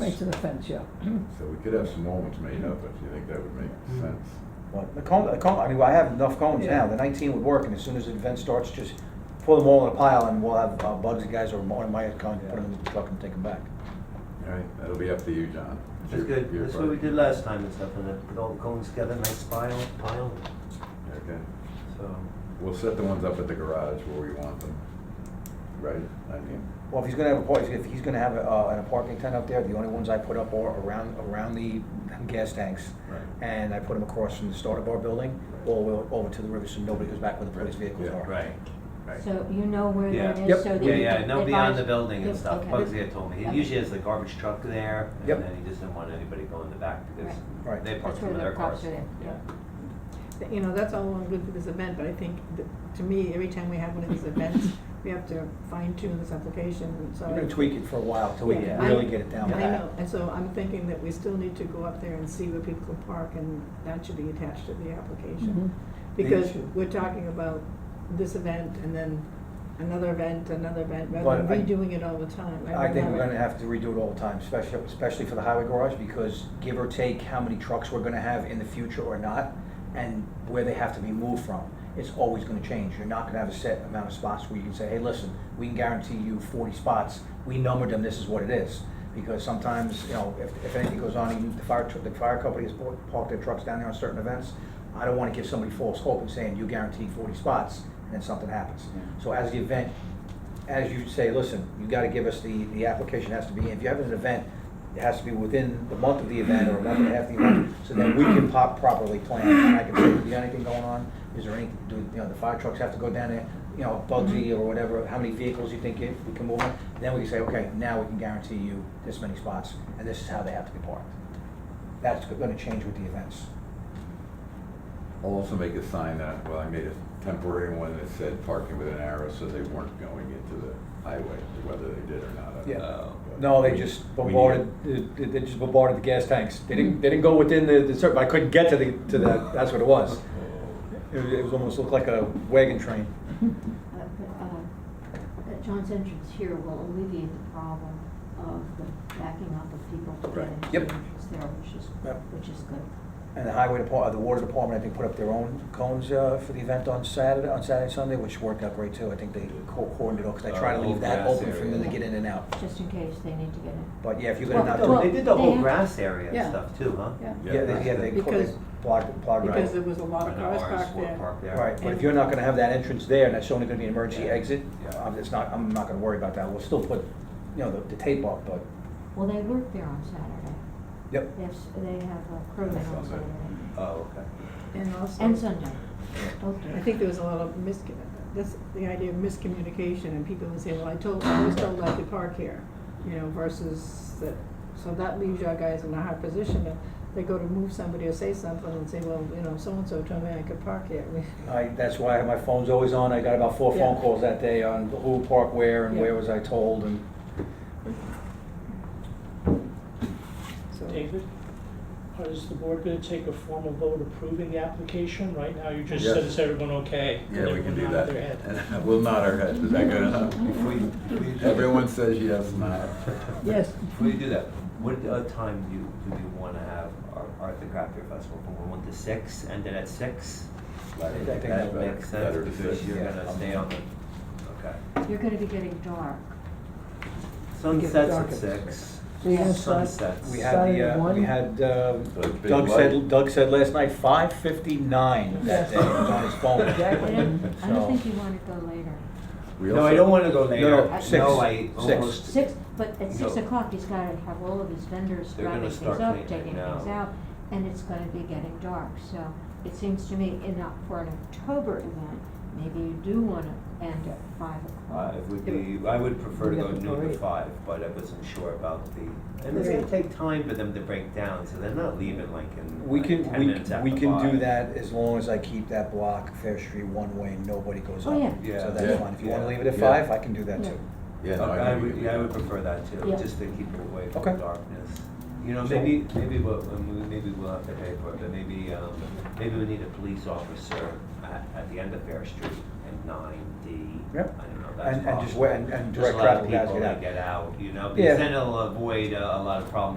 Right to the fence, yeah. So we could have some moments made up if you think that would make Mm. sense. Well, the cone, the cone, I mean, I have enough cones Yeah. now, the nineteen would work, and as soon as the event starts, just pull them all in a pile, and we'll have uh, Bugs and guys or one of my con, put them in the truck and take them back. All right, that'll be up to you, John. It's That's your- good, your that's what we party. did last time and stuff, and then put all the cones together, nice pile, pile, Okay, so. we'll set the ones up at the garage where we want them, right? I mean, Well, if he's gonna have a party, if he's gonna have a, uh, a parking tent up there, the only ones I put up are around, around the gas tanks. Right. And I put them across from the start of our building, all the way over to the river, so nobody goes back where the police vehicles Yeah. are. Right, right. So you know where Yeah. that Yep. is, so that Yeah, you yeah, can no beyond advise- the building and Yep, stuff, okay. Uh, Bugsy had told me, he Okay. usually has the garbage truck there, Yep. and then he just didn't want anybody going in the back because Right. Right. they park That's some where of the their cops cars. are there, yeah. Th- You know, that's all well and good for this event, but I think, that, to me, every time we have one of these events, we have to fine tune this application, and so. We're gonna tweak it for a while till we Yeah. really get it down I pat. know, and so I'm thinking that we still need to go up there and see where people can park, and that should be attached to the application. They Because should. we're talking about this event, and then another event, another event, rather But I- than redoing it all the time. I think we're remember- gonna have to redo it all the time, especially, especially for the highway garage, because give or take how many trucks we're gonna have in the future or not, and where they have to be moved from, it's always gonna change. You're not gonna have a set amount of spots where you can say, hey, listen, we can guarantee you forty spots, we numbered them, this is what it is. Because sometimes, you know, if, if anything goes on, even the fire, tr- the fire company has parked- parked their trucks down there on certain events, I don't wanna give somebody false hope and saying, you guarantee forty spots, and then something happens. So as the event as you say, listen, you gotta give us the, the application has to be, if you have an event, it has to be within the month of the event or a month and a half of the event, so that we can pop properly plan. And I can say, do you have anything going on? Is there any, do, you know, the fire trucks have to go down there, you know, Bugsy or whatever, how many vehicles you think it- we can move on? Then we can say, okay, now we can guarantee you this many spots, and this is how they have to be parked. That's gonna change with the events. I'll also make a sign that, well, I made a temporary one that said parking with an arrow, so they weren't going into the highway, whether they did or not. I don't Yeah. know, but No, they we- just Uh, we need Mm-hmm. bombarded. it. They they just bombarded the gas tanks. They didn't. They didn't go within the. the circle. I couldn't get to the to the. That's what it was. Oh. It, was- it was almost looked like a wagon train. Uh, but, uh, that John's entrance here will alleviate the problem of the backing up of people to get Right. into Yep. the entrance there, which is, Yep. which is good. And the highway department, the water department, I think, put up their own cones uh, for the event on Saturday, on Saturday, Sunday, which worked out great too. I think they co- cordoned it off because I try to Uh, leave Oh, old that grass open for them to area. get in and out. Just in case they need to get in. But yeah, if you're gonna Well, not do well- They it, did the they whole have- grass area and Yeah. stuff too, huh? Yeah, yeah, they, yeah, they, co- they Because- blocked blocked because right. there was a lot of Or cars an RS4 parked there. park there. Right, but if And- you're not gonna have that entrance there, and that's only gonna be an emergency Yeah. exit, Yeah. I'm just not, I'm not gonna worry about that, we'll still put, you know, the, the tape up, but, Well, they work there on Saturday. yep. Yes, they have a crew there on Sunday. Saturday. Oh, okay. And also. And Sunday, both I days. think there was a lot of mis, that's the idea of miscommunication, and people would say, well, I told, I was told I could park here, you know, versus that, so that leaves your guys in a hard position, that they go to move somebody or say something and say, well, you know, so-and-so told me I could park here. We- I, that's why my phone's always on, I got about four phone Yeah. calls that day on who parked where and Yeah. where was I told, and so- David, is the board gonna take a formal vote approving the application? Right now, you just said, Yes. is everyone okay? Yeah, we can do Everyone nodded their head. that. We'll nod our heads, is that good enough? If we, if we- Everyone says yes, nod. Yes, if we do that, what uh, time do you, do we wanna have our, our, the craft beer festival? From one to six, end it at six? I think that's That better. makes sense Better because decision. you're yeah. gonna stay on the, okay. You're gonna be getting dark. Sunsets dark at at six. So you have sun- Sunsets. we had Saturday the, uh, we one? had, uh, The big Doug light. said, Doug said last night, five fifty-nine Yes. that day, it was on his phone. Exactly. I don't, I So- don't think you wanna go later. We No, also- I don't wanna go later. no, I- six, No, I six. almost. Six, but at six No. o'clock, he's gotta have all of his vendors They're gonna wrapping things start up, cleaning taking now. things out, and it's gonna be getting dark, so it seems to me in, Oc- for an October event, maybe you do wanna end at five Uh, o'clock. it would be, I would prefer to We go have the noon to parade. five, but I wasn't sure about the, and it's gonna take time for them to break down, so they're not leaving like in We like can, ten we, minutes after we can do five. that as long as I keep that block, Fair Street, one way, nobody goes Oh, up. yeah. Yeah. So Yeah. that's fine, if you wanna leave it at Yeah. five, I can do that too. Yeah, Okay, no, I think we would, can do yeah, I would that. prefer that too, Yeah. just to keep it away from Okay. the darkness. You know, So- maybe, maybe we'll, um, maybe we'll have to pay for it, but maybe, um, maybe we need a police officer at, at the end of Fair Street and nine D. Yep. I don't know, that's And, and just, possible. wait- and, and Just direct allow traffic guys people get to out. get out, you know, Yeah. because then it'll avoid uh, a lot of problems